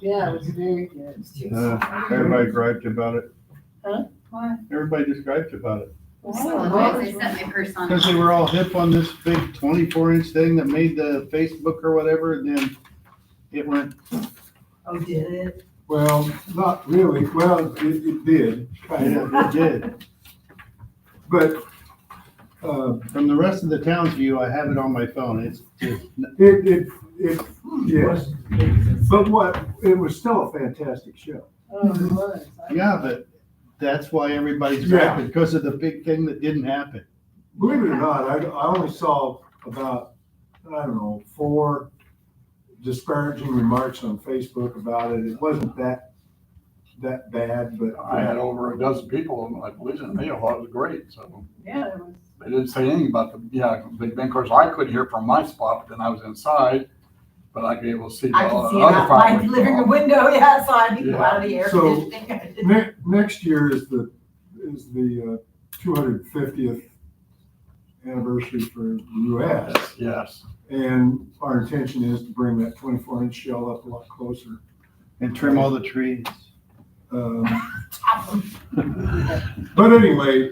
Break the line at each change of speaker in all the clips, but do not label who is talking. Yeah, it was very good.
Uh, Everybody griped about it.
Why?
Everybody just griped about it.
Why? They set my purse on.
Because they were all hip on this big twenty-four inch thing that made the Facebook or whatever, and then it went,
Oh, did it?
Well, not really, well, it, it did, kind of,
it did.
but, uh,
From the rest of the town's view, I have it on my phone. It's just,
it, it, it, yes. But what, it was still a fantastic show.
Oh, it was.
yeah, but that's why everybody's
Yeah.
griping, because of the big thing that didn't happen.
Believe it or not, I, I only saw about, I don't know, four disparaging remarks on Facebook about it. It wasn't that, that bad, but.
I had over a dozen people, and I believe in me, it was great, so
Yeah, it was.
they didn't say anything about the, yeah, Big Ben, of course, I could hear from my spot, but then I was inside, but I'd be able to see.
I
all
can see
the
it
other
out my
fireworks.
living room window, yeah, so I can go
Yeah.
out of the air
So-
conditioning.
Ne- next year is the, is the uh, two hundred fiftieth anniversary for the US.
Yes, Yes,
And our intention is to bring that twenty-four inch shell up a lot closer.
And trim all the trees.
Um, But anyway,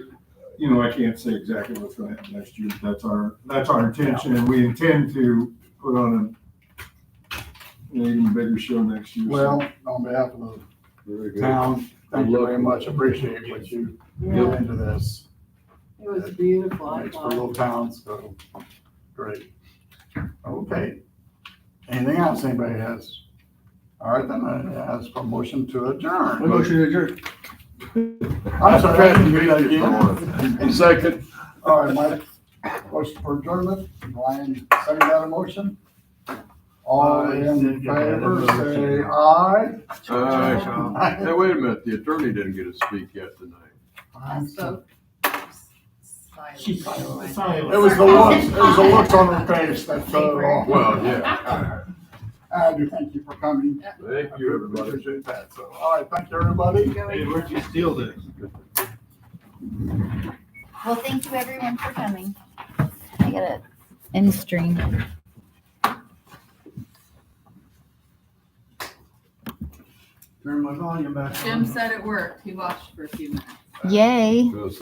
you know, I can't say exactly what's gonna happen next year. That's our, that's our intention and we intend to put on a- an even bigger show next year.
well, on behalf of
Very
the town, thank you very much, appreciate what you do
Yeah,
into this,
it was beautiful. I
makes for
thought.
little towns, so, great. Okay, anything else anybody has? All right, then I ask for motion to adjourn.
Motion adjourned.
I'm sorry, I didn't read that again. Second. All right, Mike, motion for adjournment, Brian, second that motion. All in favor, say aye.
Uh, Hey, wait a minute, the attorney didn't get to speak yet tonight.
Aye.
So-
She's silent. It
Silent.
was the looks, it was the looks on her face that threw her off.
Well, yeah.
I do thank you for coming.
Thank you,
I
everybody.
Appreciate that, so, all right, thank you, everybody.
Hey, where'd you steal this?
Well, thank you everyone for coming. I got it in stream.
Turn my volume back on.
Jim said it worked. He watched for a few minutes.
Yay.
Yes.